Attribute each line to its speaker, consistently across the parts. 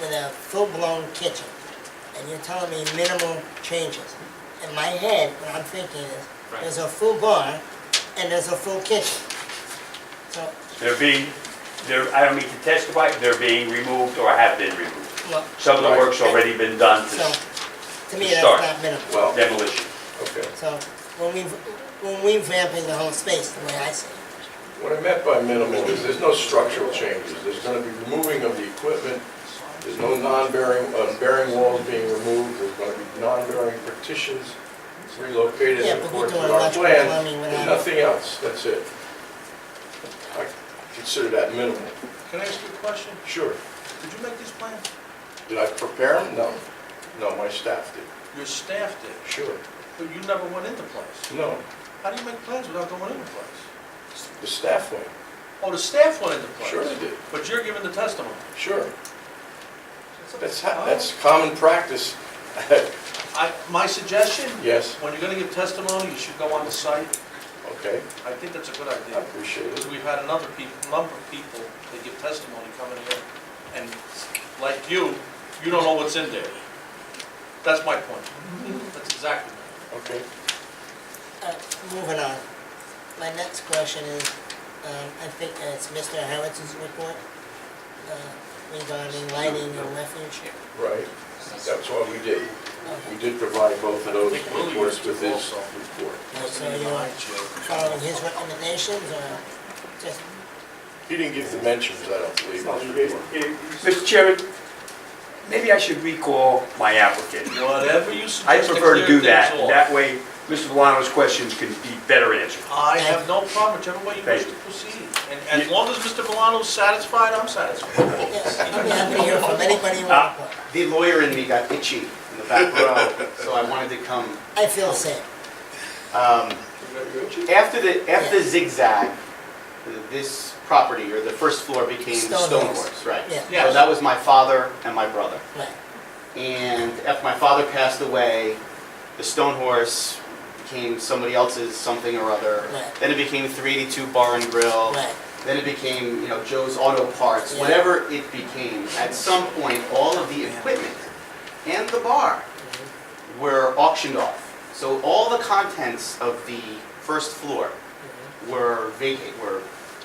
Speaker 1: with a full-blown kitchen, and you're telling me minimal changes. In my head, what I'm thinking is,
Speaker 2: Right.
Speaker 1: there's a full bar and there's a full kitchen. So,
Speaker 3: They're being, they're, I don't mean to testify, they're being removed or have been removed.
Speaker 1: well,
Speaker 3: Some of the work's already been done
Speaker 1: so,
Speaker 3: to
Speaker 1: to me,
Speaker 3: to
Speaker 1: that's
Speaker 3: start.
Speaker 1: not minimal.
Speaker 4: Well,
Speaker 3: demolition.
Speaker 4: okay.
Speaker 1: So, when we, when we vamping the whole space, the way I see it,
Speaker 4: What I meant by minimal is there's no structural changes. There's going to be removing of the equipment. There's no non-bearing, uh, bearing walls being removed. There's going to be non-bearing partitions relocated
Speaker 1: Yeah,
Speaker 4: in
Speaker 1: but we're
Speaker 4: accordance
Speaker 1: doing
Speaker 4: with our
Speaker 1: electrical
Speaker 4: plan.
Speaker 1: plumbing
Speaker 4: There's
Speaker 1: without-
Speaker 4: nothing else. That's it. I consider that minimal.
Speaker 2: Can I ask you a question?
Speaker 4: Sure.
Speaker 2: Did you make these plans?
Speaker 4: Did I prepare them? No. No, my staff did.
Speaker 2: Your staff did,
Speaker 4: Sure.
Speaker 2: but you never went into place.
Speaker 4: No,
Speaker 2: How do you make plans without going into place?
Speaker 4: the staff went.
Speaker 2: Oh, the staff went into place?
Speaker 4: Sure they did.
Speaker 2: But you're giving the testimony.
Speaker 4: Sure.
Speaker 2: a-
Speaker 4: That's, ha- that's common practice.
Speaker 2: Oh, I, my suggestion?
Speaker 4: Yes,
Speaker 2: When you're gonna give testimony, you should go on the site.
Speaker 4: okay.
Speaker 2: I think that's a good
Speaker 4: I
Speaker 2: idea.
Speaker 4: appreciate it.
Speaker 2: Because we've had another peop number of people that give testimony coming here, and like you, you don't know what's in there. That's my point. That's exactly my point.
Speaker 4: Okay.
Speaker 1: uh, moving on. My next question is, um, I think that it's Mr. Howitz's report uh, regarding lighting and refuge.
Speaker 4: Right, that's what we did.
Speaker 1: Okay.
Speaker 4: We did provide both of those
Speaker 2: I think Willie
Speaker 4: reports
Speaker 2: was
Speaker 4: with his
Speaker 2: also.
Speaker 4: report.
Speaker 1: So you're following his recommendations or just,
Speaker 4: He didn't give dimensions, I don't believe, on his report.
Speaker 3: Mr. Chairman, maybe I should recall my application.
Speaker 2: Whatever you suggest.
Speaker 3: I prefer to do
Speaker 2: clear
Speaker 3: that, and
Speaker 2: things off.
Speaker 3: that way Mr. Valano's questions can be better answered.
Speaker 2: I have no problem, whichever way you
Speaker 3: Thank
Speaker 2: wish to
Speaker 3: you.
Speaker 2: proceed. And as long as Mr. Milano's satisfied, I'm satisfied.
Speaker 1: yes, I'm happy to hear from anybody you want. but
Speaker 5: The lawyer in me got itchy in the back row, so I wanted to come.
Speaker 1: I feel safe.
Speaker 5: Um, After the, after the zigzag, this property, or the first floor became
Speaker 1: Stone
Speaker 5: Stone
Speaker 1: House.
Speaker 5: Horse, right?
Speaker 1: Yeah.
Speaker 2: Yes.
Speaker 5: So that was my father and my brother.
Speaker 1: Right.
Speaker 5: And after my father passed away, the Stone Horse became somebody else's something or other.
Speaker 1: Right.
Speaker 5: Then it became 382 Bar and Grill.
Speaker 1: Right.
Speaker 5: Then it became, you know, Joe's Auto Parts,
Speaker 1: Yeah.
Speaker 5: whatever it became. At some point, all of the equipment and the bar were auctioned off. So all the contents of the first floor were vacate, were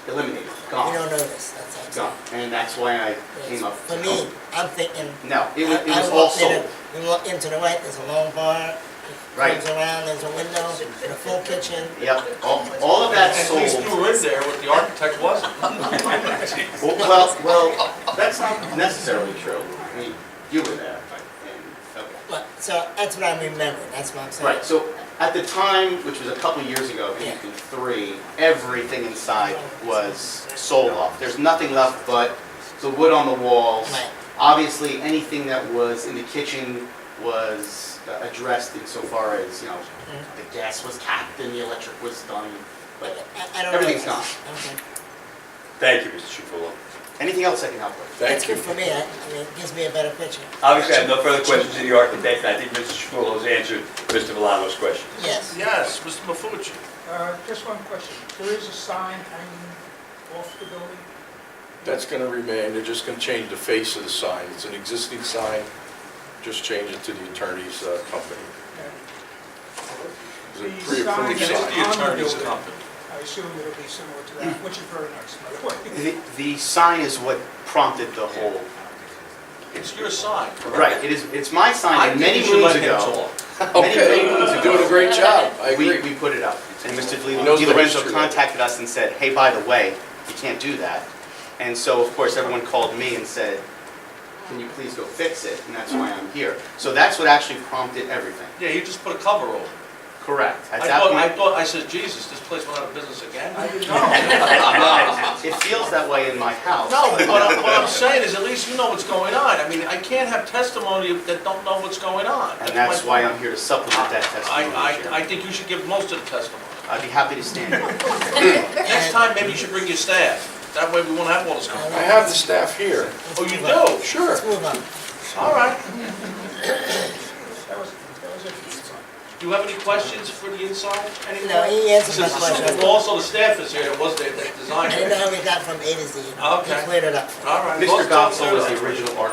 Speaker 5: eliminated,
Speaker 1: Mm-hmm. You
Speaker 5: gone,
Speaker 1: don't notice, that's all. I'm saying.
Speaker 5: gone. And that's why I
Speaker 1: Yes.
Speaker 5: came up.
Speaker 1: For me, I'm thinking.
Speaker 5: No, it was, it
Speaker 1: I- I
Speaker 5: was all
Speaker 1: walked in
Speaker 5: sold.
Speaker 1: and- You walk into the right, there's a long bar.
Speaker 5: Right.
Speaker 1: Comes around, there's a window, and a full kitchen.
Speaker 5: Yep, all, all of that
Speaker 2: At least
Speaker 5: sold.
Speaker 2: you were in there with the architect wasn't.
Speaker 5: Well, well, well, that's not necessarily true. I mean, you were there. and- okay.
Speaker 1: Right, so that's what I'm remembering, that's what I'm saying.
Speaker 5: Right, so at the time, which was a couple years ago, maybe three, everything inside was sold off. There's nothing left but the wood on the walls.
Speaker 1: Right.
Speaker 5: Obviously, anything that was in the kitchen was uh, addressed insofar as, you know, the gas was capped and the electric was done,
Speaker 1: But
Speaker 5: but
Speaker 1: I, I don't know.
Speaker 5: everything's gone.
Speaker 1: Okay.
Speaker 3: Thank you, Mr. Chufolo.
Speaker 5: Anything else I can help with?
Speaker 1: That's
Speaker 4: Thank you.
Speaker 1: good for me, I, I mean, it gives me a better picture.
Speaker 3: Obviously, I have no further questions to the architect, and I think Mr. Chufolo has answered Mr. Valano's question.
Speaker 1: Yes,
Speaker 2: Yes, Mr. Mafucci.
Speaker 6: Uh, Just one question. There is a sign hanging off the building?
Speaker 4: That's going to remain, they're just going to change the face of the sign. It's an existing sign, just change it to the attorney's uh, company. It's a
Speaker 6: The
Speaker 4: pre-approved
Speaker 6: sign that's
Speaker 4: sign.
Speaker 6: on the building, I assume it'll be similar to that, which is very nice, by the way.
Speaker 5: The, the sign is what prompted the whole,
Speaker 2: It's your sign.
Speaker 5: right, it is, it's my
Speaker 2: I
Speaker 5: sign, and
Speaker 2: think
Speaker 5: many
Speaker 2: you should
Speaker 5: moons
Speaker 2: let him
Speaker 5: ago.
Speaker 2: talk.
Speaker 5: many
Speaker 4: Okay,
Speaker 5: moons
Speaker 4: you're
Speaker 5: ago-
Speaker 4: doing a great job. I
Speaker 5: We,
Speaker 4: agree.
Speaker 5: we put it up. And Mr. Di
Speaker 4: He knows
Speaker 5: Di
Speaker 4: the
Speaker 5: Lorenzo
Speaker 4: history.
Speaker 5: contacted us and said, hey, by the way, you can't do that. And so, of course, everyone called me and said, can you please go fix it? And that's why I'm here. So that's what actually prompted everything.
Speaker 2: Yeah, you just put a cover over. it.
Speaker 5: Correct. At
Speaker 2: I
Speaker 5: that
Speaker 2: thought, I
Speaker 5: point,
Speaker 2: thought, I said, Jesus, this place went out of business again?
Speaker 5: it feels that way in my house.
Speaker 2: No, uh, what I'm, what I'm saying is at least you know what's going on. I mean, I can't have testimony that don't know what's going on.
Speaker 5: And that's why
Speaker 2: my-
Speaker 5: I'm here to supplement that
Speaker 2: I,
Speaker 5: testimony.
Speaker 2: I, I
Speaker 5: Chair.
Speaker 2: think you should give most of the testimony.
Speaker 5: I'd be happy to stand.
Speaker 2: Next time, maybe you should bring your staff. That way we won't have all this
Speaker 1: I
Speaker 2: going.
Speaker 4: I have the staff here.
Speaker 2: Oh, you do?
Speaker 4: Sure.
Speaker 1: let's move on.
Speaker 2: All right.
Speaker 6: That was, that was it.
Speaker 2: Do you have any questions for the inside? Any
Speaker 1: No, he answered my
Speaker 2: Since-
Speaker 1: question.
Speaker 2: Also, the staff is here that was there, that
Speaker 1: I
Speaker 2: designed
Speaker 1: didn't know
Speaker 2: it.
Speaker 1: how we got from A to Z.
Speaker 2: Okay.
Speaker 1: He cleared it up for me.
Speaker 2: All right.
Speaker 5: Mr.
Speaker 2: Well, it's
Speaker 5: Gopso was
Speaker 2: clear.
Speaker 5: the original architect.